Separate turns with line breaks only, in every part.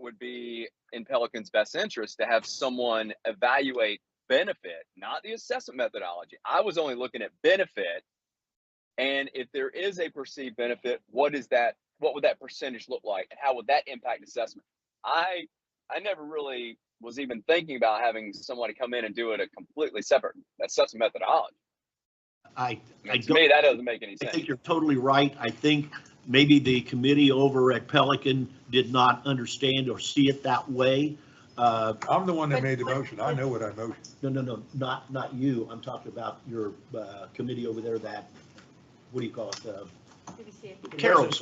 would be in Pelicans' best interest to have someone evaluate benefit, not the assessment methodology. I was only looking at benefit. And if there is a perceived benefit, what is that? What would that percentage look like? And how would that impact assessment? I I never really was even thinking about having somebody come in and do it a completely separate assessment methodology.
I,
I
I
mean, to
don't,
me, that doesn't make any
I think
sense.
you're totally right. I think maybe the committee over at Pelican did not understand or see it that way. Uh,
I'm the one that
But-
made the
but-
motion. I know what I motioned.
No, no, no, not, not you. I'm talking about your uh, committee over there that, what do you call it? Uh, Carol.
Residents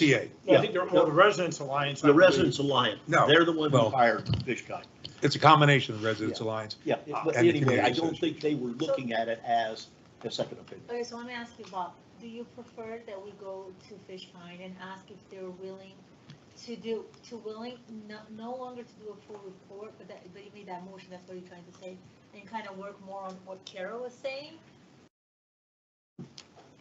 Alliance.
KBCA.
I think they're, well, the Residents Alliance. I
The
believe.
Residents Alliance.
No,
They're the ones who
well-
hired Fishkind.
It's a combination of Residents
Yeah.
Alliance.
Yeah, but
And the
Uh, anyway, I
community
don't think they were looking at it as a second opinion.
Okay, so let me ask you, Bob, do you prefer that we go to Fish Pond and ask if they're willing to do, to willing, no, no longer to do a full report, but that, but you made that motion, that's what you're trying to say, and kind of work more on what Carol was saying?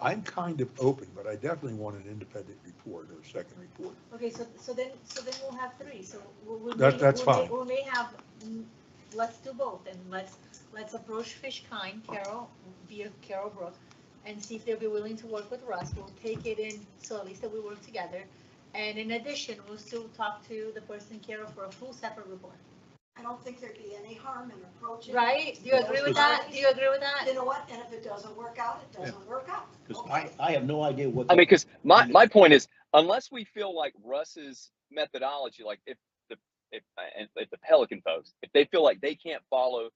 I'm kind of open, but I definitely want an independent report or a second report.
Okay, so, so then, so then we'll have three, so we, we.
That-
may-
that's
we may-
fine.
We may have, mm, let's do both, and let's, let's approach Fish Kind, Carol, via Carol Brook, and see if they'll be willing to work with Russ, we'll take it in, so at least that we work together. And in addition, we'll still talk to the person Carol for a full separate report,
I don't think there'd be any harm in approaching. it.
right? Do you agree with that? Do you agree with that?
You know what, and if it doesn't work out, it doesn't work out.
Because I, I have no idea what.
I mean, because
Mm.
my, my point is, unless we feel like Russ's methodology, like if the if and if the Pelican folks, if they feel like they can't follow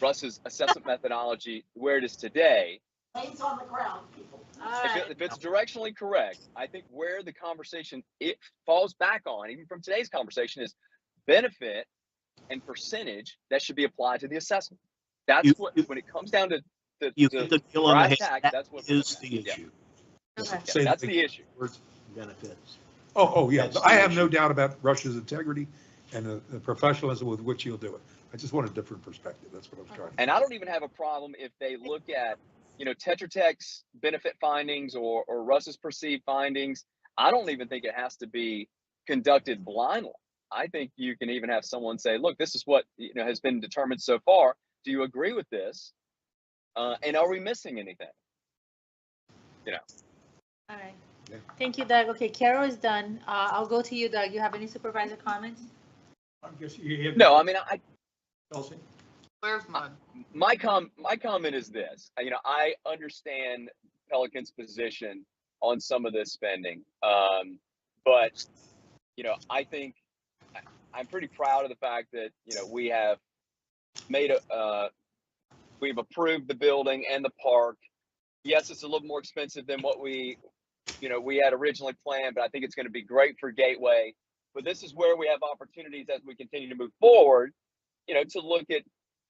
Russ's assessment methodology where it is today,
Lanes on the ground, people.
All
if, it,
right,
if
Uh,
it's directionally correct, I think where the conversation it falls back on, even from today's conversation, is benefit and percentage that should be applied to the assessment. That's
You-
what
you-
when it comes down to the,
You
the,
hit the nail
where I
on the head.
attack,
That
that's what we're
is
looking
the
at. Yeah,
issue,
okay,
yeah,
Say
that's
the-
the issue.
benefits.
Oh, oh, yeah.
That's the
I have no
issue.
doubt about Russia's integrity and the the professionalism with which you'll do it. I just want a different perspective. That's what I was trying to.
And I don't even have a problem if they look at, you know, Tetra Tech's benefit findings or, or Russ's perceived findings. I don't even think it has to be conducted blindly. I think you can even have someone say, look, this is what, you know, has been determined so far. Do you agree with this? Uh, and are we missing anything?
all right.
Yeah.
Thank you, Doug. Okay, Carol is done. Uh, I'll go to you, Doug. You have any supervisor comments?
I guess you have.
No, I mean, I,
Chelsea?
Where's mine?
my com my comment is this uh, you know i understand pelican's position on some of this spending um but you know i think I- i'm pretty proud of the fact that you know we have made a uh we've approved the building and the park yes it's a little more expensive than what we you know we had originally planned but i think it's going to be great for gateway but this is where we have opportunities as we continue to move forward you know to look at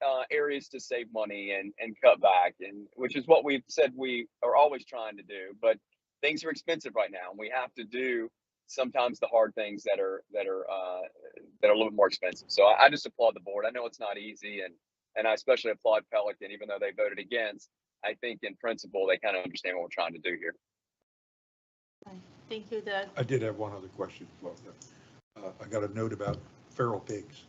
uh, areas to save money and, and cut back, and which is what we've said we are always trying to do. But things are expensive right now, and we have to do sometimes the hard things that are that are uh, that are a little bit more expensive. So I, I just applaud the board. I know it's not easy, and and I especially applaud Pelican, even though they voted against. I think in principle they kind of understand what we're trying to do here.
Thank you, Doug.
I did have one other question. as well, though. Uh, I got a note about feral pigs.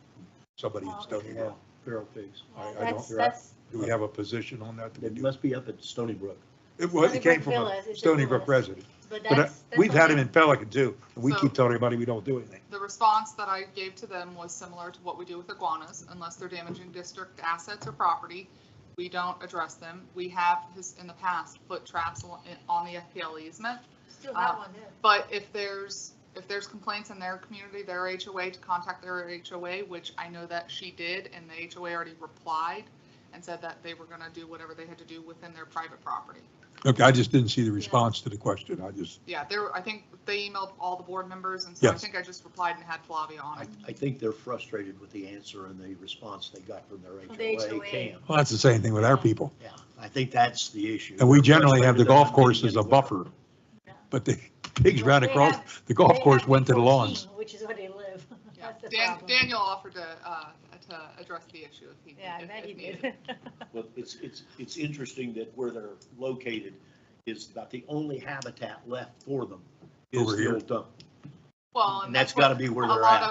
Somebody in Stony Brook.
Feral pigs.
I- I don't-
That's,
you're
that's,
Do we have a position on that? Do we
It
do-
must be up at Stony Brook.
It was, it
Stony
came
Brook
from
Villas,
a
it's a
Stony Brook
villas.
resident.
but
But uh,
that's. that's
we've had
okay.
him in Pelican too, and we
So-
keep telling everybody we don't do anything.
The response that I gave to them was similar to what we do with iguanas, unless they're damaging district assets or property. We don't address them. We have his, in the past, put traps on on the FPL easement.
Still have
Uh,
one there.
But if there's, if there's complaints in their community, their HOA, to contact their HOA, which I know that she did, and the HOA already replied and said that they were gonna do whatever they had to do within their private property.
Okay, I just didn't see the response to the question. I just,
Yeah, there, I think they emailed all the board members, and so I
Yes.
think I just replied and had Flavia on
I,
it.
I think they're frustrated with the answer and the response they got from their
From the
HOA
HOA.
camp.
well, that's the same thing with our people.
Yeah, I think that's the issue.
And we generally have the
They're frustrated
golf course as
that
a
they're not
buffer,
Yeah.
but the pigs
Well,
ran
they
across,
have-
the
they
golf
have
course went to the
14,
lawns.
Which is where they live.
Yeah,
That's the
Dan,
problem.
Daniel offered to, uh, to address the issue if he.
Yeah, I
if-
bet
if
he did.
needed.
getting- Well, it's, it's, it's interesting that where they're located is about the only habitat left for them is
Over
the
here.
old dump.
Well,
And that's
what
gotta be where
a
they're
lot
at.